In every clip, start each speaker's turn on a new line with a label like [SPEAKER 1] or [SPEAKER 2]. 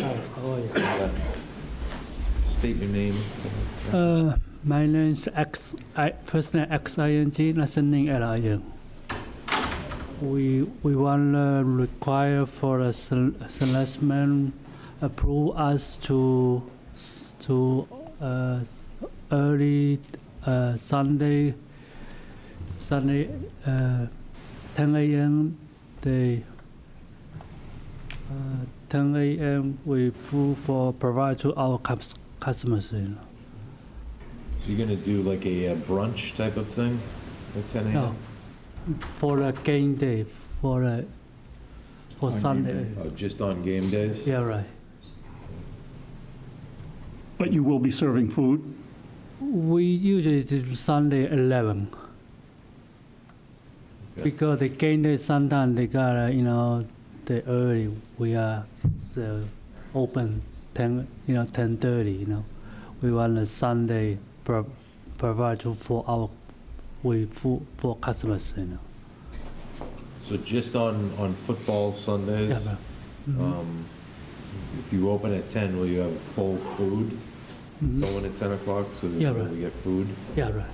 [SPEAKER 1] How are you?
[SPEAKER 2] State your name.
[SPEAKER 1] Uh, my name is X, I, first name X I N G, last name L I N. We, we want to require for a sel- selectman approve us to, s- to, uh, early, uh, Sunday, Sunday, uh, ten AM, they, uh, ten AM, we food for provide to our cus- customers, you know.
[SPEAKER 2] You're gonna do like a uh, brunch type of thing at 10
[SPEAKER 1] No,
[SPEAKER 2] a.m.?
[SPEAKER 1] for a game day, for a, for Sunday.
[SPEAKER 2] Oh, Just on game days?
[SPEAKER 1] Yeah, right.
[SPEAKER 3] But you will be serving food?
[SPEAKER 1] We usually do Sunday 11.
[SPEAKER 2] Okay.
[SPEAKER 1] Because the game day sometimes they got, uh, you know, the early, we are so open 10, you know, 10:30, you know. We want a Sunday pro- provide to for our, we, for, for customers, you know.
[SPEAKER 2] So just on, on football
[SPEAKER 1] Yeah, Mm-hmm.
[SPEAKER 2] Sundays?
[SPEAKER 1] right.
[SPEAKER 2] um, If you open at 10, will you have full food
[SPEAKER 1] Mhm.
[SPEAKER 2] going at 10 o'clock so
[SPEAKER 1] Yeah,
[SPEAKER 2] that
[SPEAKER 1] right.
[SPEAKER 2] we get food?
[SPEAKER 1] Yeah, right.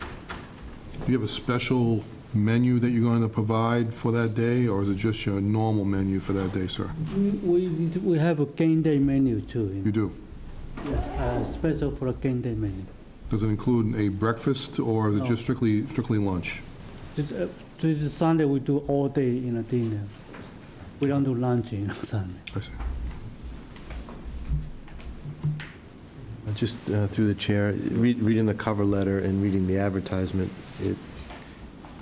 [SPEAKER 4] Do you have a special menu that you're going to provide for that day, or is it just your normal menu for that day, sir?
[SPEAKER 1] We, we have a game day menu too, you know.
[SPEAKER 4] You do.
[SPEAKER 1] Uh, special for a game day menu.
[SPEAKER 4] Does it include a breakfast, or is it
[SPEAKER 1] No.
[SPEAKER 4] just strictly, strictly lunch?
[SPEAKER 1] This, uh, this Sunday we do all day you know dinner. We don't do lunch you know Sunday.
[SPEAKER 4] I see.
[SPEAKER 5] Just uh, through the chair, read- reading the cover letter and reading the advertisement, it,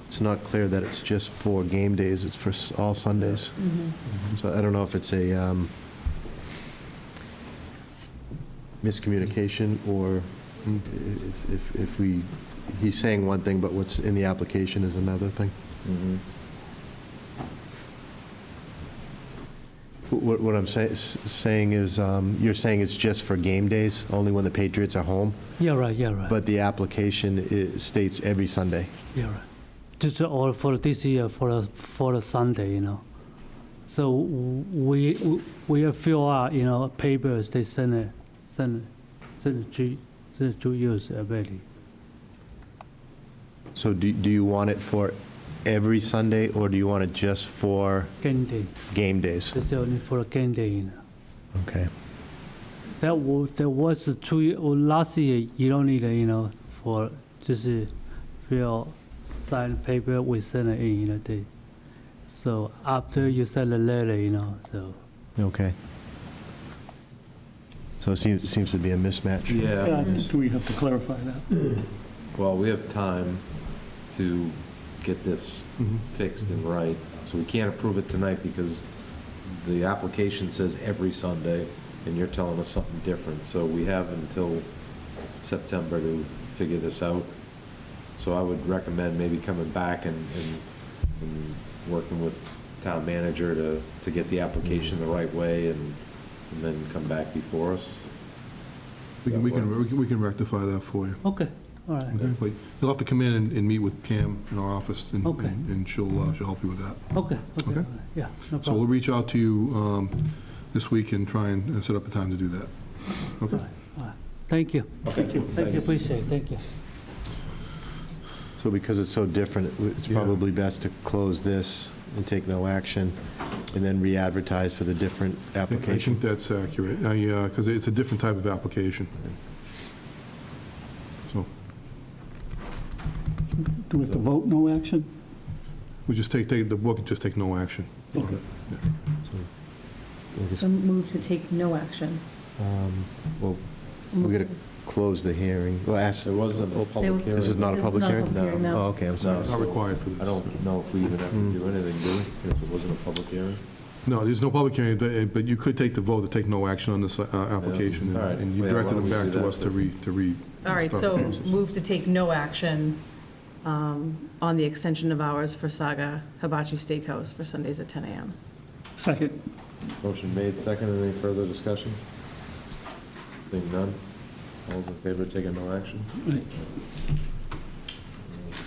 [SPEAKER 5] it's not clear that it's just for game days, it's for s- all Sundays. So I don't know if it's a um, miscommunication or if- if, if we, he's saying one thing, but what's in the application is another thing.
[SPEAKER 2] Mhm.
[SPEAKER 5] What, what I'm say- s- saying is, um, you're saying it's just for game days, only when the Patriots are home?
[SPEAKER 1] Yeah right, yeah right.
[SPEAKER 5] But the application i- states every Sunday.
[SPEAKER 1] yeah right. Just all for this year for a, for a Sunday you know. So we we- we fill out you know papers they send it send it, send it to send it to uh, use already.
[SPEAKER 5] So do, do you want it for every Sunday, or do you want it just for
[SPEAKER 1] Game day.
[SPEAKER 5] game days?
[SPEAKER 1] It's only for a game day you know.
[SPEAKER 5] Okay.
[SPEAKER 1] That was, that was a two year, or last year, you don't need, a, you know, for, just uh, fill, sign paper, we send it in, you know, they, so after you send a letter, you know, so,
[SPEAKER 5] Okay. So it seems, it seems to be a mismatch.
[SPEAKER 2] Yeah,
[SPEAKER 3] Do we have to clarify that?
[SPEAKER 2] well, we have time to get this
[SPEAKER 4] Mm-hmm.
[SPEAKER 2] fixed and right. So we can't approve it tonight because the application says every Sunday, and you're telling us something different. So we have until September to figure this out. So I would recommend maybe coming back and, and, and working with town manager to, to get the application the right way and, and then come back before us.
[SPEAKER 4] We can, we can, we can- we can rectify that for you.
[SPEAKER 1] okay, all right,
[SPEAKER 4] Okay, But you'll have to come in and, and meet with Pam in our office, and,
[SPEAKER 1] Okay. Mm-hmm.
[SPEAKER 4] and and she'll, uh, she'll help you with that.
[SPEAKER 1] okay, okay, all
[SPEAKER 4] Okay.
[SPEAKER 1] right, yeah, no
[SPEAKER 4] So we'll
[SPEAKER 1] problem.
[SPEAKER 4] reach out to you um, this week and try and uh, set up a time to do that.
[SPEAKER 1] All
[SPEAKER 4] Okay?
[SPEAKER 1] right, all right. Thank you,
[SPEAKER 2] Thank you.
[SPEAKER 1] thank you, appreciate it, thank you.
[SPEAKER 5] So because it's so different, it w- it's
[SPEAKER 4] Yeah.
[SPEAKER 5] probably best to close this and take no action, and then re-advertise for the different
[SPEAKER 4] I think- I think
[SPEAKER 5] application.
[SPEAKER 4] that's accurate, because it's a different type of application. So
[SPEAKER 3] Do we have to vote no action?
[SPEAKER 4] we just take, take the book and just take no action.
[SPEAKER 3] Okay.
[SPEAKER 5] Okay,
[SPEAKER 6] So move to take no action.
[SPEAKER 5] um, Well, we gotta close the hearing. Well, ask,
[SPEAKER 2] There wasn't a
[SPEAKER 6] There
[SPEAKER 2] public
[SPEAKER 6] was-
[SPEAKER 2] hearing.
[SPEAKER 5] this is not a
[SPEAKER 6] It's
[SPEAKER 5] public
[SPEAKER 6] not a
[SPEAKER 5] hearing?
[SPEAKER 6] public hearing, no.
[SPEAKER 5] Oh, okay, I'm sorry.
[SPEAKER 4] It's not required for this.
[SPEAKER 2] I don't know if we even have to do anything, do we? If it wasn't a public hearing?
[SPEAKER 4] No, there's no public hearing, but- uh, but you could take the vote to take no action on this uh, application,
[SPEAKER 2] Yeah. All right.
[SPEAKER 4] and- and you
[SPEAKER 2] Yeah, why
[SPEAKER 4] directed
[SPEAKER 2] don't
[SPEAKER 4] them
[SPEAKER 2] we do
[SPEAKER 4] back to
[SPEAKER 2] that
[SPEAKER 4] us to re, to re.
[SPEAKER 7] All right,
[SPEAKER 4] start
[SPEAKER 7] so
[SPEAKER 4] the process.
[SPEAKER 7] move to take no action um, on the extension of hours for Saga Hibachi Steakhouse for Sundays at 10 a.m.
[SPEAKER 3] Second.
[SPEAKER 2] Motion made, second, any further discussion? Seeing none, all those in favor taking no action?